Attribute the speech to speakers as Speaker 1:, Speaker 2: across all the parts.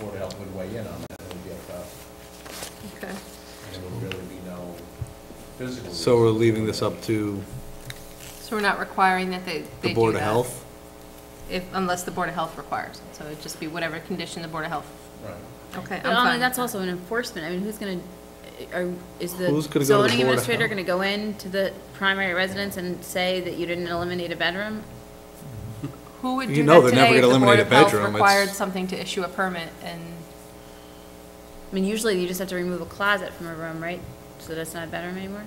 Speaker 1: Board of Health would weigh in on that, it would be up to us.
Speaker 2: Okay.
Speaker 1: And there would really be no physical.
Speaker 3: So we're leaving this up to
Speaker 2: So we're not requiring that they, they
Speaker 3: the
Speaker 2: do
Speaker 3: Board of
Speaker 2: that?
Speaker 3: Health?
Speaker 2: If, unless the Board of Health requires it, so it'd just be whatever condition the Board of Health,
Speaker 1: Right.
Speaker 2: okay, I'm
Speaker 4: But I
Speaker 2: fine.
Speaker 4: mean, that's also an enforcement, I mean, who's gonna, are, is the
Speaker 3: Who's gonna go to the Board of
Speaker 4: zoning administrator
Speaker 3: Health?
Speaker 4: gonna go in to the primary residence and say that you didn't eliminate a bedroom?
Speaker 2: Who would
Speaker 3: You
Speaker 2: do
Speaker 3: know
Speaker 2: that
Speaker 3: they're never
Speaker 2: today if
Speaker 3: gonna
Speaker 2: the Board
Speaker 3: eliminate a
Speaker 2: of Health
Speaker 3: bedroom, it's-
Speaker 2: required something to issue a permit and,
Speaker 4: I mean, usually you just have to remove a closet from a room, right? So that's not a bedroom anymore?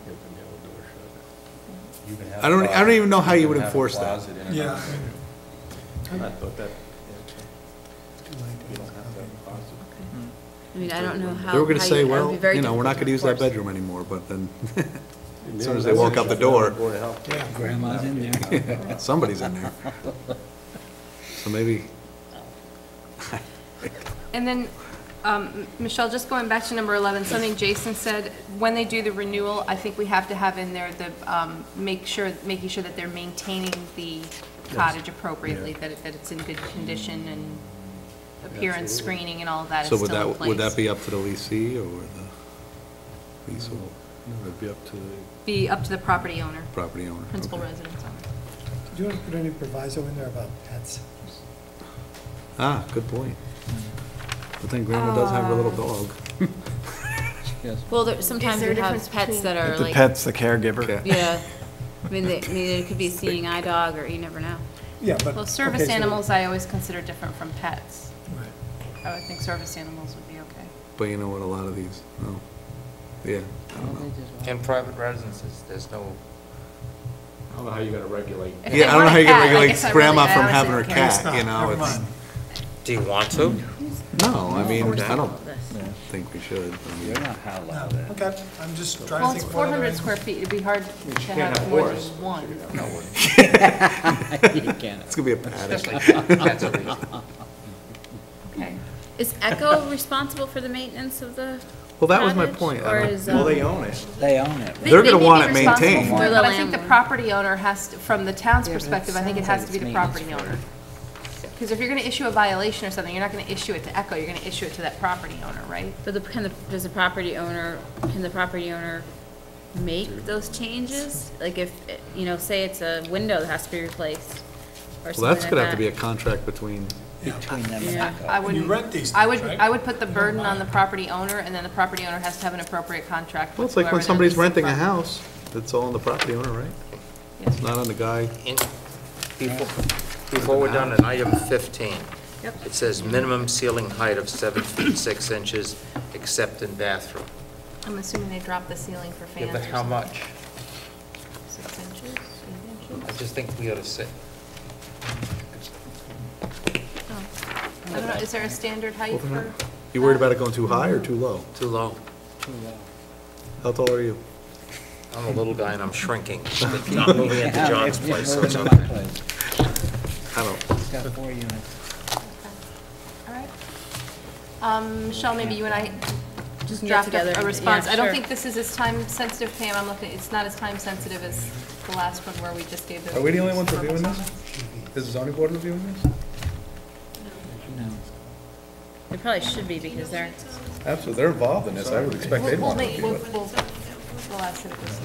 Speaker 1: You can have
Speaker 3: I don't- e-,
Speaker 1: a
Speaker 3: I don't even know how
Speaker 1: closet.
Speaker 3: you
Speaker 1: can
Speaker 3: would
Speaker 1: have a
Speaker 3: enforce that.
Speaker 1: closet in and
Speaker 5: Yeah.
Speaker 1: out.
Speaker 6: I thought that,
Speaker 1: You don't have to have a closet.
Speaker 4: I mean, I don't know how.
Speaker 3: They were gonna
Speaker 4: how
Speaker 3: say,
Speaker 4: you- that would
Speaker 3: well,
Speaker 4: be very
Speaker 3: you know, we're not
Speaker 4: difficult
Speaker 3: gonna use that
Speaker 4: enforce.
Speaker 3: bedroom anymore, but then As soon as they walk out the door.
Speaker 6: Board of Health.
Speaker 5: Yeah.
Speaker 7: Grandma's in there.
Speaker 3: somebody's in there. So maybe,
Speaker 2: and then, um, Michelle, just going back to number eleven, something Jason said, when they do the renewal, I think we have to have in there the, um, make sure, making sure that they're maintaining the cottage appropriately, that it, that it's in good condition and appearance screening and all of that is
Speaker 3: so
Speaker 2: still in
Speaker 3: would
Speaker 2: place.
Speaker 3: that, would that be up to the leasee or the leasehold
Speaker 6: It'd be up to the.
Speaker 2: Be up to the property owner,
Speaker 3: property owner?
Speaker 2: principal
Speaker 3: Okay.
Speaker 2: residence owner.
Speaker 5: Do you want to put any proviso in there about pets?
Speaker 3: Ah, good point. But then Grandma does have her little dog.
Speaker 4: Well, there, sometimes
Speaker 2: there
Speaker 4: you
Speaker 2: a difference
Speaker 4: have pets
Speaker 2: between-
Speaker 4: that are
Speaker 7: The
Speaker 4: like.
Speaker 7: pet's the caregiver.
Speaker 3: Okay.
Speaker 4: Yeah, I mean, they, I mean, it could be a seeing eye dog, or you never know.
Speaker 5: Yeah, but.
Speaker 2: Well,
Speaker 5: okay,
Speaker 2: service
Speaker 5: so-
Speaker 2: animals I always consider different from pets.
Speaker 5: Right.
Speaker 2: I would think service animals would be okay.
Speaker 3: But you know what, a lot of these, no. Yeah, I don't know.
Speaker 8: In private residences, there's no,
Speaker 6: I don't know how you're gonna regulate.
Speaker 2: If they
Speaker 3: Yeah, I don't know
Speaker 2: want a
Speaker 3: how you can
Speaker 2: cat, I
Speaker 3: regulate
Speaker 2: guess I really-
Speaker 3: grandma
Speaker 2: I
Speaker 3: from
Speaker 2: honestly
Speaker 3: having
Speaker 2: don't
Speaker 3: her
Speaker 2: care.
Speaker 5: It's
Speaker 3: cat,
Speaker 5: not,
Speaker 3: you know,
Speaker 5: never
Speaker 3: it's,
Speaker 5: mind.
Speaker 8: do you want to?
Speaker 3: no, I mean, I don't
Speaker 4: This.
Speaker 3: think we should. I mean,
Speaker 7: You're not how loud
Speaker 5: No, okay, I'm just
Speaker 2: Well,
Speaker 5: trying to
Speaker 2: it's
Speaker 5: think. of what
Speaker 2: four
Speaker 5: other
Speaker 2: hundred
Speaker 5: animals-
Speaker 2: square feet, it'd be hard to
Speaker 6: can't
Speaker 2: have
Speaker 6: have
Speaker 2: more than
Speaker 6: horse.
Speaker 2: one.
Speaker 7: You can't.
Speaker 3: It's gonna be a paddock.
Speaker 8: Especially cats are easy.
Speaker 2: Okay.
Speaker 4: Is Echo responsible for the maintenance of the?
Speaker 3: Well, that was my
Speaker 4: cottage,
Speaker 3: point. I
Speaker 4: Or
Speaker 3: don't-
Speaker 4: is,
Speaker 2: uh,
Speaker 6: Well, they
Speaker 4: um,
Speaker 6: own it.
Speaker 7: They own it.
Speaker 4: They-
Speaker 3: They're
Speaker 4: they
Speaker 3: gonna
Speaker 4: may
Speaker 3: want
Speaker 4: be
Speaker 3: it
Speaker 2: responsible
Speaker 3: maintained.
Speaker 2: for it,
Speaker 4: They're the
Speaker 2: But I think the
Speaker 4: landlord.
Speaker 2: property owner has, to from the town's
Speaker 7: Yeah, but it
Speaker 2: perspective, I think it has
Speaker 7: sounds like
Speaker 2: to be the
Speaker 7: it's
Speaker 2: property
Speaker 7: maintenance
Speaker 2: owner. Because if you're gonna issue a violation or something, you're not gonna issue it to Echo, you're gonna issue it to that property owner, right?
Speaker 4: But the, can the, does the property owner, can the property owner make those changes? Like if, eh, you know, say it's a window that has to be replaced, or something
Speaker 3: Well, that's
Speaker 4: like
Speaker 3: gonna have to be a
Speaker 4: that.
Speaker 3: contract between,
Speaker 7: Between them and
Speaker 4: Yeah.
Speaker 7: Echo.
Speaker 2: I wouldn't.
Speaker 5: rent these
Speaker 2: I would,
Speaker 5: things, right?
Speaker 2: I would put the burden on the property owner, and then the property owner has to have an appropriate contract
Speaker 3: well,
Speaker 2: with
Speaker 3: it's like
Speaker 2: whoever
Speaker 3: when
Speaker 2: they're
Speaker 3: somebody's
Speaker 2: leasing
Speaker 3: renting a
Speaker 2: from.
Speaker 3: house, it's all on the property owner, right? It's not on the guy.
Speaker 8: In- Before before we're done, in item 15,
Speaker 2: Yep.
Speaker 8: it says minimum ceiling height of seven feet six inches, except in bathroom.
Speaker 2: I'm assuming they drop the ceiling for
Speaker 8: Yeah,
Speaker 2: fans.
Speaker 8: but
Speaker 2: or
Speaker 8: how
Speaker 2: something.
Speaker 8: much?
Speaker 2: Six inches, eight
Speaker 8: I
Speaker 2: inches?
Speaker 8: just think we ought to sit.
Speaker 2: Oh. I don't know, is there a standard height for?
Speaker 3: You worried about it going too high or too low?
Speaker 8: Too low.
Speaker 3: How tall are you?
Speaker 8: I'm a little guy and I'm shrinking. But Not moving into John's place, so it's
Speaker 7: Moving
Speaker 8: okay.
Speaker 7: to my place.
Speaker 3: I don't,
Speaker 7: It's got four units.
Speaker 2: All right. Um, Michelle, maybe you and I
Speaker 4: Just get
Speaker 2: draft
Speaker 4: together
Speaker 2: up
Speaker 4: and-
Speaker 2: a
Speaker 4: yeah,
Speaker 2: response. I don't
Speaker 4: sure.
Speaker 2: think this is as time sensitive, Pam, I'm looking, it's not as time sensitive as the last one where we just gave those.
Speaker 3: Are we the only ones
Speaker 2: verbal
Speaker 3: reviewing this?
Speaker 2: comments.
Speaker 3: is the zoning board reviewing this?
Speaker 7: No.
Speaker 4: It probably should be, because they're,
Speaker 3: Absolutely, they're involved in this, I would expect
Speaker 2: We'll, we'll make, we'll, we'll, we'll ask if this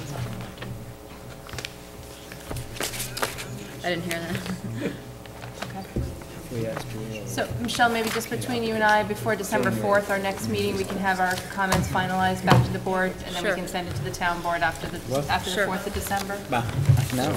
Speaker 2: is on.
Speaker 4: I didn't hear that.
Speaker 7: We asked Julia.
Speaker 2: So, Michelle, maybe just between you and I, before December 4th, our next meeting, we can have our comments finalized back to the board, and then we
Speaker 4: Sure.
Speaker 2: can send it to the town board after the,
Speaker 7: What?
Speaker 2: after the
Speaker 4: Sure.
Speaker 2: 4th of December.
Speaker 7: Bah, No.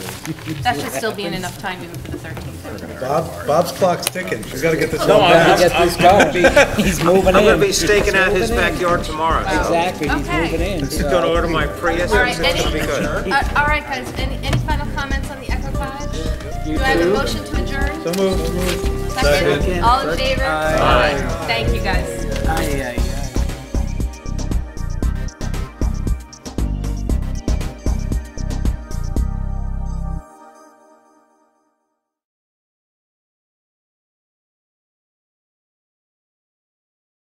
Speaker 2: That should still be in enough time even for the 13th.
Speaker 3: Bob, Bob's clock's ticking, she's gotta get this
Speaker 2: Oh.
Speaker 3: done.
Speaker 7: Gotta get this going. He's moving
Speaker 8: I'm going to be
Speaker 7: in.
Speaker 8: staking out his backyard tomorrow.
Speaker 7: Exactly, he's
Speaker 2: Okay.
Speaker 7: moving in.
Speaker 8: He's going to order my Prius,
Speaker 2: All right,
Speaker 8: it's going to be
Speaker 2: any-
Speaker 8: good.
Speaker 2: Uh, All right, guys, any, any final comments on the Echo Cottage? Do I have a motion to adjourn?
Speaker 3: So moved.
Speaker 2: Second? All in favor? Aye. Thank you, guys.
Speaker 7: Aye, aye.